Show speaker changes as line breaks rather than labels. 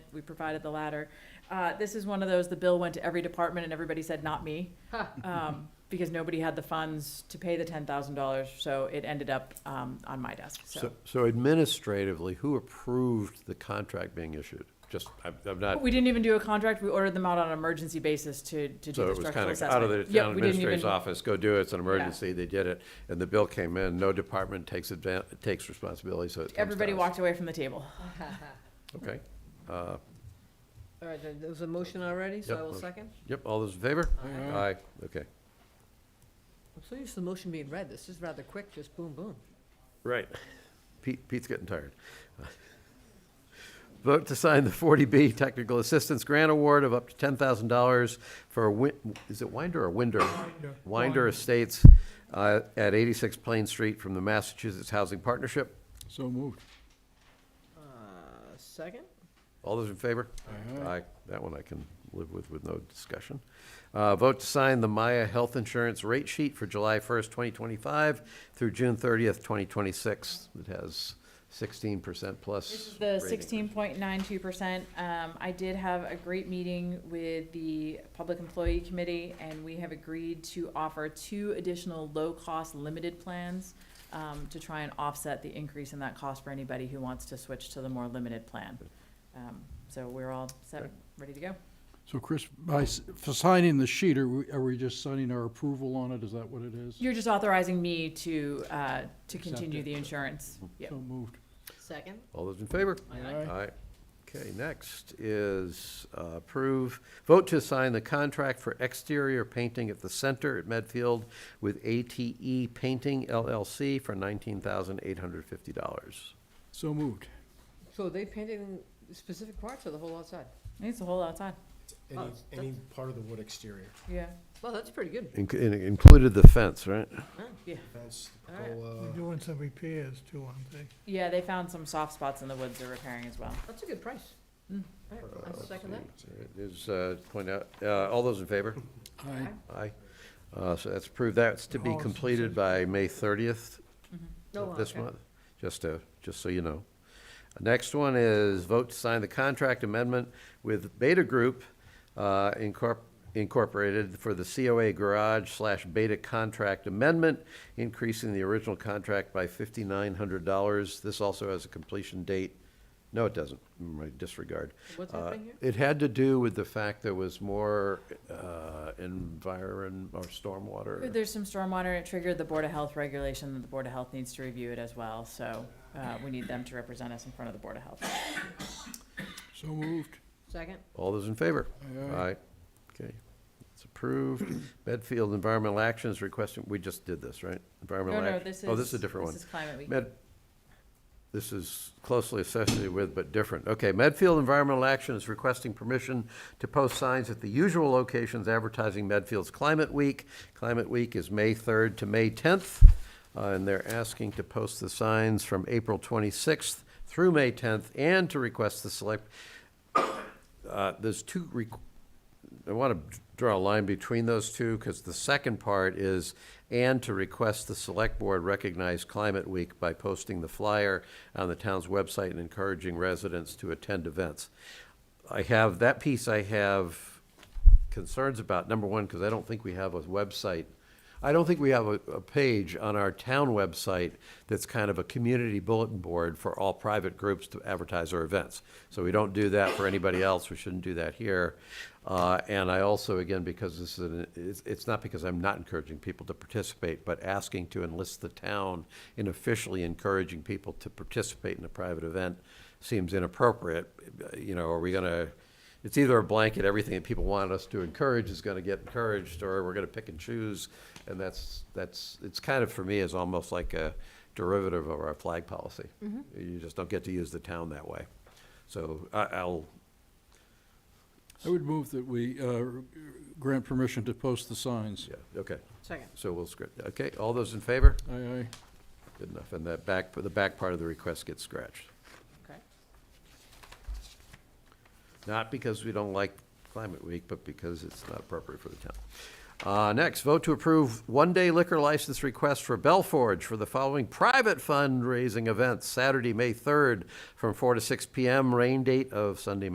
we provided the latter. Uh, this is one of those, the bill went to every department and everybody said, not me. Um, because nobody had the funds to pay the ten thousand dollars, so it ended up, um, on my desk, so.
So uh, so administratively, who approved the contract being issued? Just, I'm- I'm not,
We didn't even do a contract, we ordered them out on an emergency basis to, to do
so
the
it was
structural
kind of
assessment.
out of the
Yeah,
town
we didn't
administrator's
even-
office, go do it, it's an emergency, they did it. And the bill came in, no department takes advan, takes responsibility, so it comes to
Everybody
us.
walked away from the table.
Okay. Uh,
All right, there there was a motion already, so
Yep,
I will
motion.
second.
Yep, all those in favor?
Mm-hmm.
Aye.
Aye, okay.
I'm so used to the motion being read. This is rather quick, just boom, boom.
Right. Pete, Pete's getting tired. Vote to sign the 40B Technical Assistance Grant Award of up to $10,000 for, Win- is it Winder or Winder? Winder Estates uh, at 86 Plain Street from the Massachusetts Housing Partnership.
So moved.
Uh, Second?
All those in favor? Aye. That one I can live with, with no discussion. Uh, Vote to sign the Maya Health Insurance Rate Sheet for July 1st, 2025 through June 30th, 2026. It has 16% plus.
This is the
rate
sixteen point nine two percent. Um, I did have a great meeting with the Public Employee Committee, and we have agreed to offer two additional low-cost limited plans um, to try and offset the increase in that cost for anybody who wants to switch to the more limited plan. Um, so we're all set,
Okay.
ready to go.
So Chris, by, s- for signing the sheet, are we, are we just signing our approval on it? Is that what it is?
You're just authorizing me to, uh, to
Accept
continue
it.
the insurance. Yep.
So moved.
Second.
All those in favor?
Aye.
Aye. Okay, next is uh, approve, vote to sign the contract for exterior painting at the center at Medfield with ATE Painting LLC for $19,850.
So moved.
So they painted in specific parts or the whole outside?
It's a whole outside.
Oh,
Any,
it's-
any part of the wood exterior,
Yeah.
Well, that's pretty good.
Inc- in- Included the fence, right?
Huh?
fence, the
All right.
They're
pergola,
doing some repairs too, aren't they?
Yeah, they found some soft spots in the woods they're repairing as well.
That's a good price.
Mm.
All right, I second that.
Is, uh, point out, uh, all those in favor?
Aye.
Aye. Uh, So that's approved. That's to be
Oh, so-
completed by May 30th
Mhm.
No,
this
okay.
month, just to, just so you know. Next one is vote to sign the contract amendment with Beta Group uh, Incorp- Incorporated for the COA Garage slash Beta Contract Amendment, increasing the original contract by fifty-nine hundred dollars. This also has a completion date. No, it doesn't. My disregard.
What's
Uh,
happening here?
It had to do with the fact there was more uh, environ, or stormwater.
There's some stormwater, and it triggered the Board of Health regulation, and the Board of Health needs to review it as well, so, uh, we need them to represent us in front of the Board of Health.
So moved.
Second?
All those in favor? Aye. Okay, it's approved. Medfield Environmental Action is requesting, we just did this, right?
No,
Environmental
no,
Action.
this is.
Oh, this is a different one.
This is Climate Week.
Med, this is closely associated with but different. Okay, Medfield Environmental Action is requesting permission to post signs at the usual locations advertising Medfield's Climate Week. Climate Week is May 3rd to May 10th, uh, and they're asking to post the signs from April 26th through May 10th, and to request the select, uh, there's two, requ- I want to draw a line between those two, because the second part is, and to request the select board recognize Climate Week by posting the flyer on the town's website and encouraging residents to attend events. I have, that piece I have concerns about, number one, because I don't think we have a website. I don't think we have a, a page on our town website that's kind of a community bulletin board for all private groups to advertise our events. So we don't do that for anybody else, we shouldn't do that here. Uh, and I also, again, because this is, an- it's, it's not because I'm not encouraging people to participate, but asking to enlist the town in officially encouraging people to participate in a private event seems inappropriate. You know, are we gonna, it's either a blanket, everything that people want us to encourage is gonna get encouraged, or we're gonna pick and choose. And that's, that's, it's kind of, for me, is almost like a derivative of our flag policy. You just don't get to use the town that way. So I, I'll,
I would move that we uh, grant permission to post the signs.
yeah, okay,
Second.
so we'll script, okay, all those in favor?
Aye, aye.
Good enough, and that back, the back part of the request gets scratched.
Okay.
Not because we don't like Climate Week, but because it's not appropriate for the town. Uh, next, vote to approve one-day liquor license request for Belforge for the following private fundraising events, Saturday, May third, from four to six PM, rain date of Sunday,